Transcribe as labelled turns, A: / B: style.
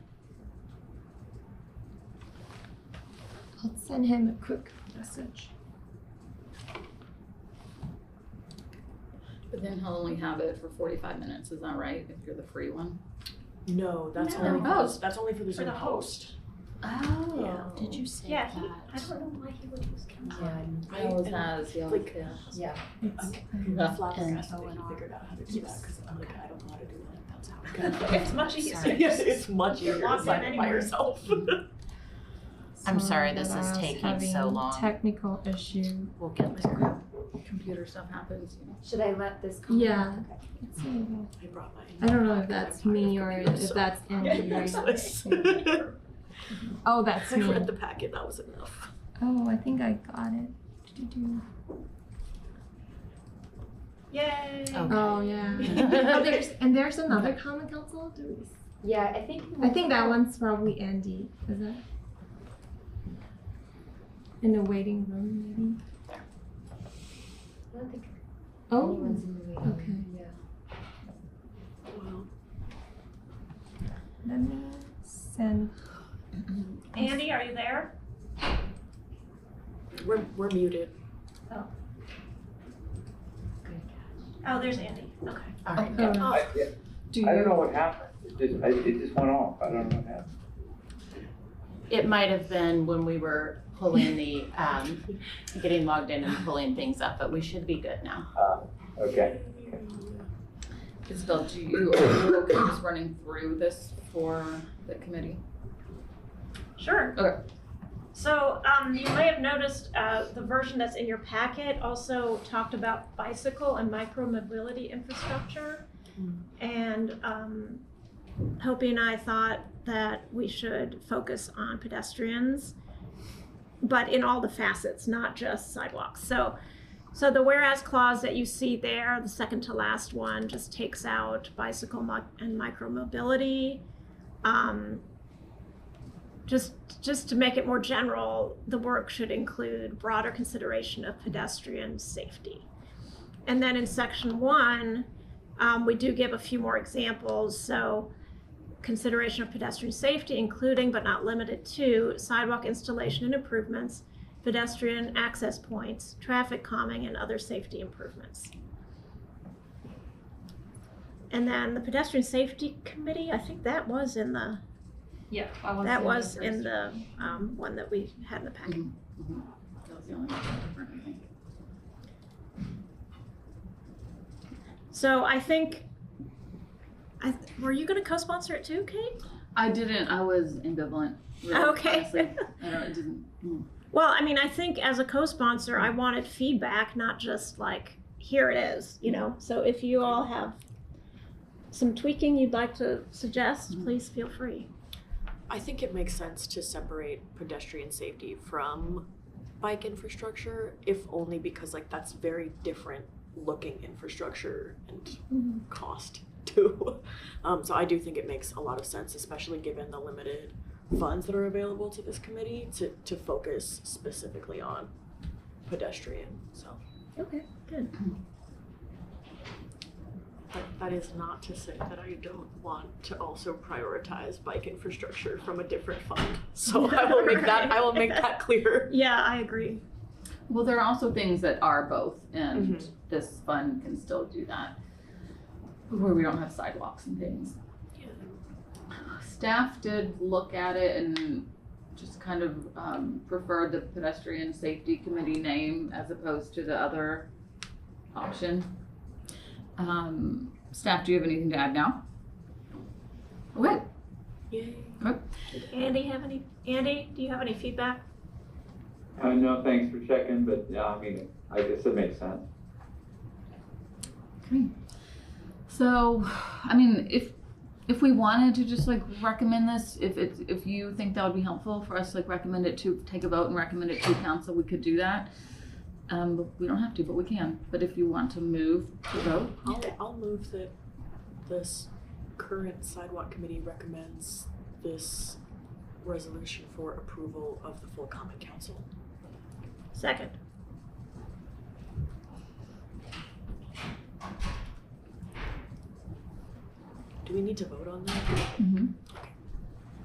A: I'll send him a quick message.
B: But then he'll only have it for forty-five minutes, is that right, if you're the free one?
C: No, that's
A: No.
C: only for
B: Oh.
C: the, that's only for the
D: For
C: Zoom
D: the
C: host.
B: Oh, did you say
D: Yeah,
B: that?
D: he, I don't know why he would use council.
B: He always has, he always
C: Like-
B: has.
E: Yeah.
A: It's-
C: I'm
B: Yeah.
C: flabbergasted
E: And-
C: that you figured out how to do that because I'm like, I don't know how to do that. That's how. I got it.
D: It's much easier.
E: Sorry.
C: Yes, it's much
D: You're
C: easier to
D: locked
C: sign
D: in
C: it by
D: anyway.
C: yourself.
E: I'm sorry
A: that
E: this is
A: I was
E: taking so
A: having
E: long.
A: Technical issue.
E: We'll get there.
B: Computer stuff happens, you know.
F: Should I let this? come?
A: Yeah.
D: Oh.
C: I brought mine.
A: I don't know if that's me or if that's Andy. right?
C: Useless.
A: Oh, that's
C: I
A: me.
C: read the packet, that was enough.
A: Oh, I think I got it. Do-do-do.
D: Yay.
E: Oh.
A: Oh, yeah. Oh, there's, and there's another common council. Do we-
F: Yeah, I think.
A: I think that one's probably Andy. Is that? In the waiting room, maybe.
F: I don't think
A: Oh,
F: anyone's in the meeting.
A: okay.
F: Yeah.
C: Wow.
A: Let me send.
D: Andy, are you there?
C: We're, we're muted.
D: Oh, there's Andy. Okay.
E: All right.
A: her-
C: Oh,
A: Do
G: I don't know
A: you?
G: what happened. It just, I- it just went off. I don't know what happened.
E: It might have been when we were pulling the, um, getting logged in and pulling things up, but we should be good now.
G: Okay.
B: Isabel, do you, are you okay just running through this for the committee?
D: Sure.
B: Okay.
D: So, um, you may have noticed, uh, the version that's in your packet also talked about bicycle and micromobility infrastructure. And, um, Hopi and I thought that we should focus on pedestrians, but in all the facets, not just sidewalks. So, so the whereas clause that you see there, the second to last one, just takes out bicycle mo- and micromobility. Um, just just to make it more general, the work should include broader consideration of pedestrian safety. And then in section one, um, we do give a few more examples. So consideration of pedestrian safety, including but not limited to sidewalk installation and improvements, pedestrian access points, traffic calming, and other safety improvements. And then the pedestrian safety committee, I think that was in the
H: Yeah, I was.
D: that was in the um, one that we had in the packet.
B: That was the only one different, I think.
D: So I think, I, th- were you gonna co-sponsor it too, Kate?
B: I didn't, I was ambivalent, really, honestly.
D: Okay.
B: I don't, it didn't,
D: Well, I mean, I think as a co-sponsor, I wanted feedback, not just like, here it is, you know? So if you all have some tweaking you'd like to suggest, please feel free.
C: I think it makes sense to separate pedestrian safety from bike infrastructure, if only because like that's very different looking infrastructure and
A: Mhm.
C: cost too. Um, so I do think it makes a lot of sense, especially given the limited funds that are available to this committee to, to focus specifically on pedestrian. So
A: Okay.
C: But that is not to say that I don't want to also prioritize bike infrastructure from a different fund. So I will make that I will make that clear.
D: Yeah, I agree.
B: well, there are also things that are both, and
C: Mhm.
B: this fund can still do that. Where we don't have sidewalks and things.
C: Yeah.
B: Staff did look at it and just kind of um, preferred the pedestrian safety committee name as opposed to the other option. Um, staff, do you have anything to add now? What?
C: Yay.
D: Andy, have any, Andy, do you have any feedback?
G: Uh, no, thanks for checking, but yeah, I mean, I guess it makes sense.
B: So, I mean, if if we wanted to just like recommend this, if it's if you think that would be helpful for us, like recommend it to take a vote and recommend it to council, we could do that. Um, but we don't have to, but we can. But if you want to move to vote,
C: I'll I'll move that this current sidewalk committee recommends this resolution for approval of the full common council.
D: Second.
C: Do we need to vote on that?
B: mm-hmm.